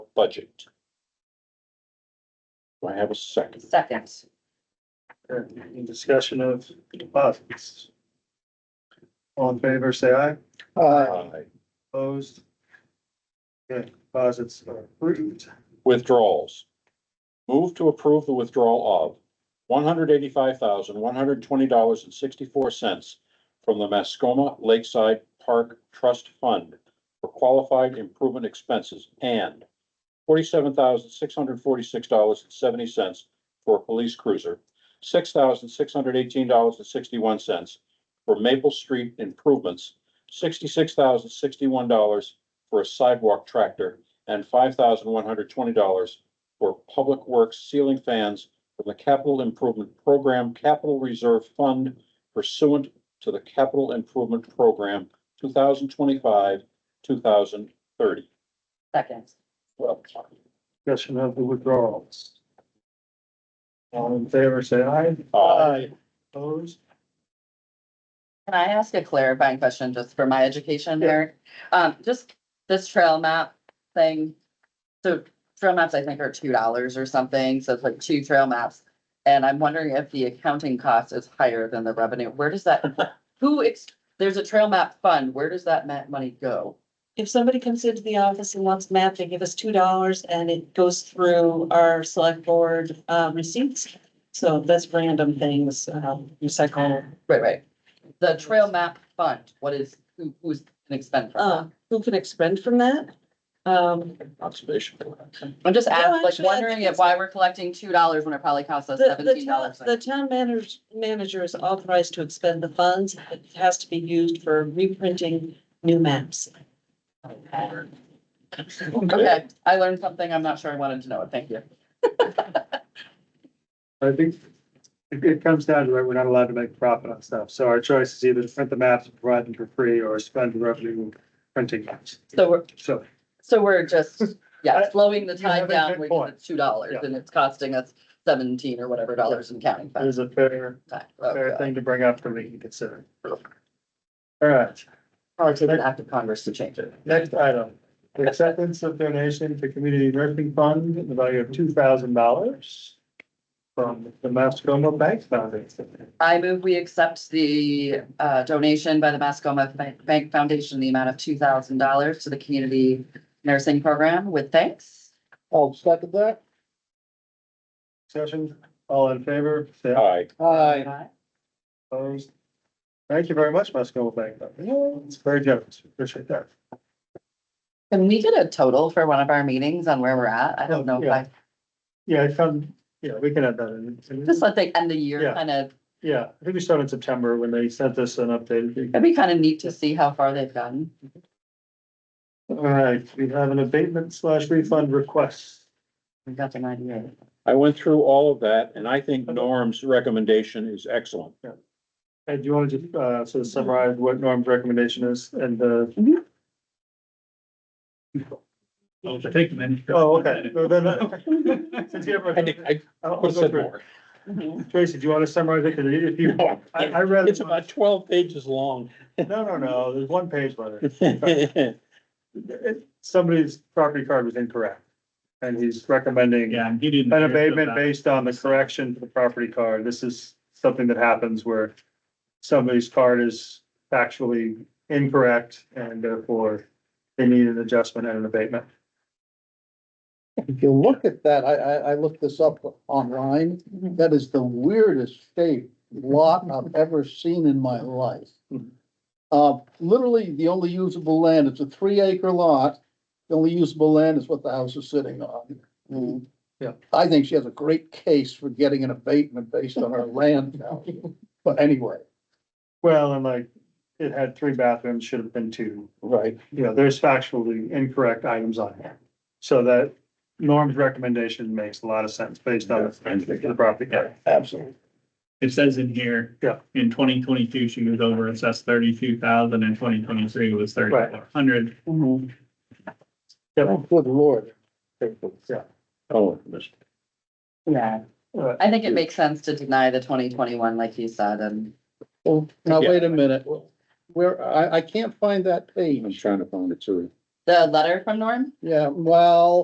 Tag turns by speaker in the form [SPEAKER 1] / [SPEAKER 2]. [SPEAKER 1] budget. Do I have a second?
[SPEAKER 2] Second.
[SPEAKER 3] Any discussion of deposits? All in favor, say aye.
[SPEAKER 1] Aye.
[SPEAKER 3] Opposed? Okay, deposits are approved.
[SPEAKER 1] Withdrawals. Move to approve the withdrawal of one hundred eighty-five thousand, one hundred twenty dollars and sixty-four cents from the Mascoma Lakeside Park Trust Fund for qualified improvement expenses and forty-seven thousand, six hundred forty-six dollars and seventy cents for a police cruiser, six thousand, six hundred eighteen dollars and sixty-one cents for Maple Street improvements, sixty-six thousand, sixty-one dollars for a sidewalk tractor, and five thousand one hundred twenty dollars for public works ceiling fans from the Capital Improvement Program Capital Reserve Fund pursuant to the Capital Improvement Program two thousand twenty-five, two thousand thirty.
[SPEAKER 2] Second.
[SPEAKER 3] Discussion of the withdrawals. All in favor, say aye.
[SPEAKER 1] Aye.
[SPEAKER 3] Opposed?
[SPEAKER 2] Can I ask a clarifying question just for my education, Eric? Um, just this trail map thing. So trail maps, I think, are two dollars or something, so it's like two trail maps. And I'm wondering if the accounting cost is higher than the revenue. Where does that, who, ex- there's a trail map fund, where does that ma- money go?
[SPEAKER 4] If somebody comes into the office and wants a map, they give us two dollars and it goes through our select board uh receipts. So that's random things, um recycle,
[SPEAKER 2] Right, right. The trail map fund, what is, who, who's an expend from
[SPEAKER 4] uh
[SPEAKER 2] that?
[SPEAKER 4] who can expend from that? Um,
[SPEAKER 1] Conservation.
[SPEAKER 2] I'm just asking, like
[SPEAKER 4] actually, I
[SPEAKER 2] wondering
[SPEAKER 4] think
[SPEAKER 2] if why we're collecting two dollars when it probably costs us
[SPEAKER 4] the the
[SPEAKER 2] seventeen
[SPEAKER 4] town,
[SPEAKER 2] dollars.
[SPEAKER 4] the town manager, manager is authorized to expend the funds. It has to be used for reprinting new maps.
[SPEAKER 2] Okay, I learned something. I'm not sure I wanted to know it. Thank you.
[SPEAKER 3] I think it, it comes down to, it, we're not allowed to make profit on stuff, so our choice is either to print the maps and provide them for free or spend the revenue printing maps.
[SPEAKER 2] So we're,
[SPEAKER 3] So,
[SPEAKER 2] so we're just, yeah,
[SPEAKER 3] I-
[SPEAKER 2] slowing the
[SPEAKER 3] Uh, you
[SPEAKER 2] time
[SPEAKER 3] have a
[SPEAKER 2] down.
[SPEAKER 3] good
[SPEAKER 2] We
[SPEAKER 3] point.
[SPEAKER 2] it's two dollars
[SPEAKER 3] Yeah.
[SPEAKER 2] and it's costing us seventeen or whatever dollars in counting.
[SPEAKER 3] it is a fair,
[SPEAKER 2] back. Oh,
[SPEAKER 3] Mm. fair
[SPEAKER 2] God.
[SPEAKER 3] thing to bring up for me to consider. All right,
[SPEAKER 2] Probably take an act of Congress to change it.
[SPEAKER 3] Next item, the acceptance of donation to Community Nursing Fund in the value of two thousand dollars from the Mascoma Bank Foundation.
[SPEAKER 2] I move we accept the uh, donation by the Mascoma Ban- Bank Foundation, in the amount of two thousand dollars to the community nursing program with thanks.
[SPEAKER 5] I'll second that.
[SPEAKER 3] Session, all in favor, say aye.
[SPEAKER 1] Aye.
[SPEAKER 5] Aye.
[SPEAKER 3] Opposed? Thank you very much, Mascoma Bank Foundation. It's very generous. Appreciate that.
[SPEAKER 2] Can we get a total for one of our meetings on where we're at? I don't know if I,
[SPEAKER 3] Yeah, I found, yeah, we can add that in.
[SPEAKER 2] just let the end of the year
[SPEAKER 3] Yeah.
[SPEAKER 2] kind of,
[SPEAKER 3] Yeah, I think we started in September when they sent us an update.
[SPEAKER 2] it'd be kind of neat to see how far they've gotten.
[SPEAKER 3] All right, we have an abatement slash refund request.
[SPEAKER 2] We got an idea.
[SPEAKER 1] I went through all of that and I think Norm's recommendation is excellent.
[SPEAKER 3] Ed, do you want to just, uh, sort of summarize what Norm's recommendation is and the?
[SPEAKER 1] Mm-hmm.
[SPEAKER 2] Mhm.
[SPEAKER 3] Oh, take them in. Oh, okay. No, then, uh, since you have
[SPEAKER 1] I think I
[SPEAKER 3] a- I'll- I'll
[SPEAKER 1] could have
[SPEAKER 3] go
[SPEAKER 1] said
[SPEAKER 3] through
[SPEAKER 1] more.
[SPEAKER 3] it. Tracy, do you want to summarize it? 'Cause if you,
[SPEAKER 1] No,
[SPEAKER 3] I, I read.
[SPEAKER 1] It's about twelve pages long.
[SPEAKER 3] No, no, no, there's one page letter.
[SPEAKER 1] Right,
[SPEAKER 3] It- Somebody's property card was incorrect. And he's recommending
[SPEAKER 6] Yeah, I'm getting.
[SPEAKER 3] an abatement based on the correction to the property card. This is something that happens where somebody's card is factually incorrect and therefore they need an adjustment and an abatement.
[SPEAKER 5] If you look at that, I, I, I looked this up online.
[SPEAKER 3] Mm-hmm.
[SPEAKER 5] That is the weirdest shaped lot I've ever seen in my life.
[SPEAKER 3] Hmm.
[SPEAKER 5] Uh, literally, the only usable land, it's a three acre lot. The only usable land is what the house is sitting on.
[SPEAKER 3] Mm-hmm. Yeah.
[SPEAKER 5] I think she has a great case for getting an abatement based on her land value. But anyway,
[SPEAKER 3] Well, and like, it had three bathrooms, should have been two. You know, there's factually incorrect items on here. So that Norm's recommendation makes a lot of sense based on the property card.
[SPEAKER 5] absolutely.
[SPEAKER 6] It says in here.
[SPEAKER 3] Yeah.
[SPEAKER 6] In twenty twenty-two, she was over assessed thirty-two thousand, and twenty twenty-three was thirty-four hundred.
[SPEAKER 2] Mm-hmm.
[SPEAKER 5] Oh, Good lord.
[SPEAKER 3] Yeah.
[SPEAKER 1] Oh, Mr.
[SPEAKER 2] Yeah.
[SPEAKER 3] Uh,
[SPEAKER 2] I think it makes sense to deny the twenty twenty-one, like you said, and
[SPEAKER 5] Well, now
[SPEAKER 1] Yeah.
[SPEAKER 5] wait a minute. Where, I, I can't find that
[SPEAKER 1] I'm
[SPEAKER 5] page.
[SPEAKER 1] trying to find it too.
[SPEAKER 2] the letter from Norm?
[SPEAKER 5] Yeah, well.